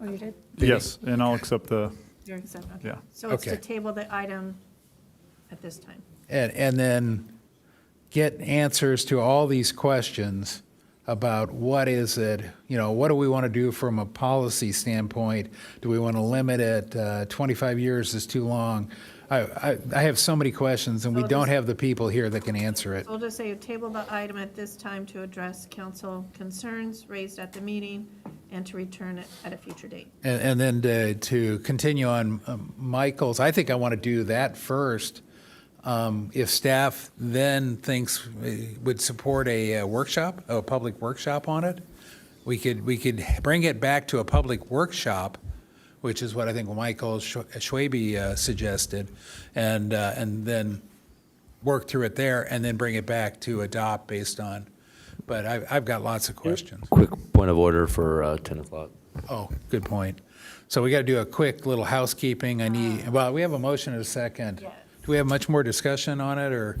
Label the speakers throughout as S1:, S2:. S1: Oh, you did?
S2: Yes, and I'll accept the,
S1: You already said, okay.
S2: yeah.
S1: So it's to
S3: Okay.
S1: table the item at this time.
S3: And, and then get answers to all these questions about what is it, you know, what do we want to do from a policy standpoint? Do we want to limit it? Uh, 25 years is too long. I, I, I have so many questions, and we
S1: So
S3: don't
S1: this-
S3: have the people here that can answer it.
S1: So we'll just say table the item at this time to address council concerns raised at the meeting and to return it at a future date.
S3: And, and then to, to continue on um, Michael's, I think I want to do that first. Um, If staff then thinks, we would support a uh, workshop, a public workshop on it, we could, we could bring it back to a public workshop, which is what I think Michael Schw- Schwabe uh, suggested, and, uh, and then work through it there, and then bring it back to adopt based on, but I, I've got lots of questions.
S4: Quick point of order for uh, 10 o'clock.
S3: Oh, good point. So we got to do a quick little housekeeping. I need, well, we have a motion and a second.
S1: Yes.
S3: Do we have much more discussion on it, or?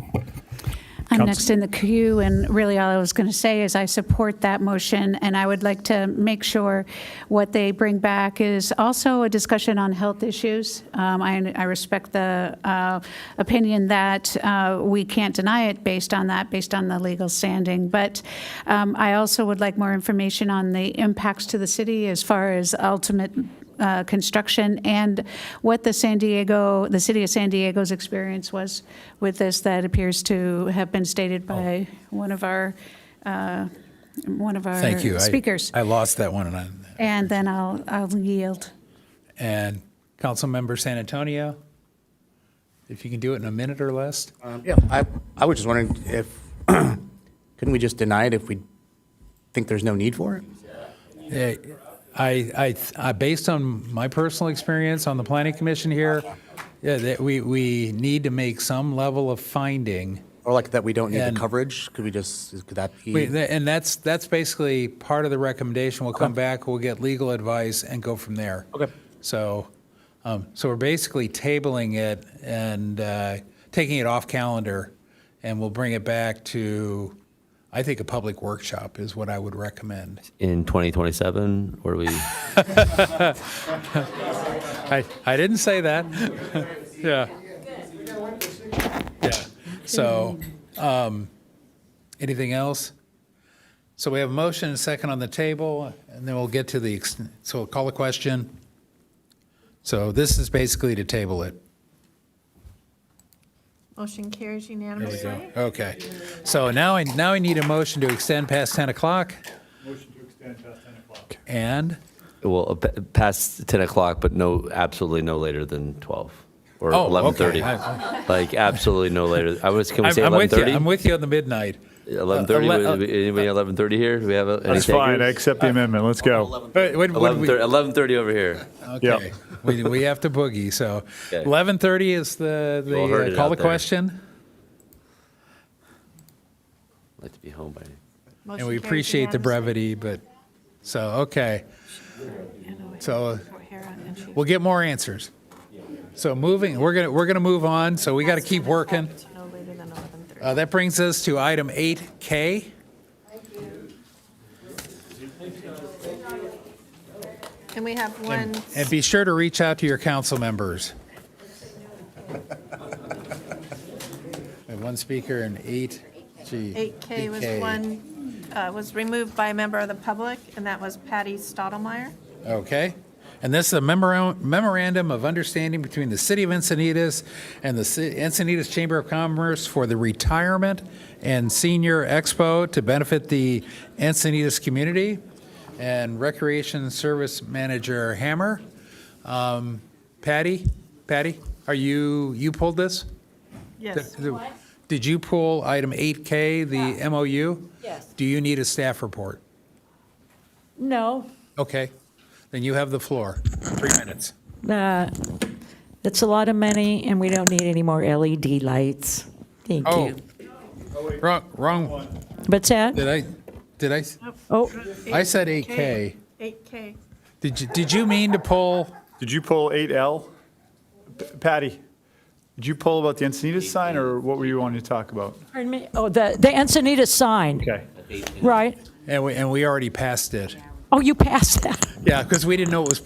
S5: I'm
S2: Counsel-
S5: next in the queue, and really all I was going to say is I support that motion, and I would like to make sure what they bring back is also a discussion on health issues. Um, I I respect the uh, opinion that uh, we can't deny it based on that, based on the legal standing, but um, I also would like more information on the impacts to the city as far as ultimate uh, construction and what the San Diego, the city of San Diego's experience was with this that appears to have been stated
S3: Oh.
S5: by one of our, uh, one of
S3: Thank you.
S5: our
S3: I-
S5: Uh, speakers.
S3: I lost that one, and I,
S5: And then I'll, I'll yield.
S3: and Councilmember San Antonio, if you can do it in a minute or less?
S6: Um, Yeah, I, I was just wondering if, couldn't we just deny it if we think there's no need for it?
S3: Eh, I, I, I- based on my personal experience on the planning commission here, yeah, that we, we need to make some level of finding.
S6: Or like that we don't need the
S3: And-
S6: coverage? Could we just, is- could that
S3: Wait,
S6: be?
S3: tha- And that's, that's basically part of the recommendation. We'll come back, we'll get legal advice and go from there.
S6: Okay.
S3: So, um, so we're basically tabling it and uh, taking it off calendar, and we'll bring it back to, I think, a public workshop is what I would recommend.
S4: In 2027, where we,
S3: I, I didn't say that. Yeah. Yeah. So, um, anything else? So we have a motion and a second on the table, and then we'll get to the, ex- so we'll call a question. So this is basically to table it.
S1: Motion carries unanimously.
S3: Okay. So now I, now I need a motion to extend past 10 o'clock
S2: Motion to extend past 10 o'clock.
S3: and,
S4: well, uh, pa- past 10 o'clock, but no, absolutely no later than 12 or
S3: Oh, okay.
S4: 11:30. Like, absolutely no later. I was, can we
S3: I'm
S4: say
S3: I'm with you, I'm
S4: 11:30?
S3: with you on the midnight. Uh,
S4: 11:30,
S3: Ele-
S4: Would- anybody 11:30 here? Do we have a- any
S2: That's fine, I
S4: takers?
S2: accept the amendment, let's go.
S3: Wait, wait, what did we-
S4: 11:30 11:30 over here.
S2: Yeah.
S3: Okay, we, we have to boogie, so
S4: Okay.
S3: 11:30 is the,
S4: all
S3: the,
S4: heard
S3: uh,
S4: it
S3: call
S4: out
S3: the
S4: there.
S3: question,
S4: I'd like to be home by,
S3: and we appreciate the brevity, but, so, okay, so uh, we'll get more answers. So moving, we're gonna, we're gonna move on, so we gotta keep working.
S1: No later than 11:30.
S3: Uh, that brings us to item 8K.
S1: And we
S3: Uh,
S1: have one,
S3: And be sure to reach out to your council members. We have one speaker and eight, gee.
S1: 8K was
S3: 8K.
S1: one, uh, was removed by a member of the public, and that was Patty Stottlemyre.
S3: Okay. And this is a memora- memorandum of understanding between the City of Encinitas and the Ci- Encinitas Chamber of Commerce for the Retirement and Senior Expo to benefit the Encinitas community and Recreation Service Manager Hammer. Um, Patty, Patty, are you, you pulled this?
S1: Yes.
S3: Did you pull item 8K, the MOU?
S7: Yes.
S3: Do you need a staff report?
S7: No,
S3: Okay, then you have the floor. Three minutes.
S7: uh, that's a lot of money, and we don't need any more LED lights. Thank
S3: Oh,
S7: you.
S3: wrong, wrong,
S7: What's that?
S3: did I, did I, s-
S7: Oh,
S3: I said 8K.
S1: 8K.
S3: Did you, did you mean to pull,
S2: Did you pull 8L? P- Patty, did you pull about the Encinitas sign, or what were you wanting to talk about?
S7: pardon me. Oh, the the Encinitas sign,
S2: Okay.
S7: right?
S3: and we, and we already passed it?
S7: Oh, you passed that.
S3: Yeah, because we didn't know it was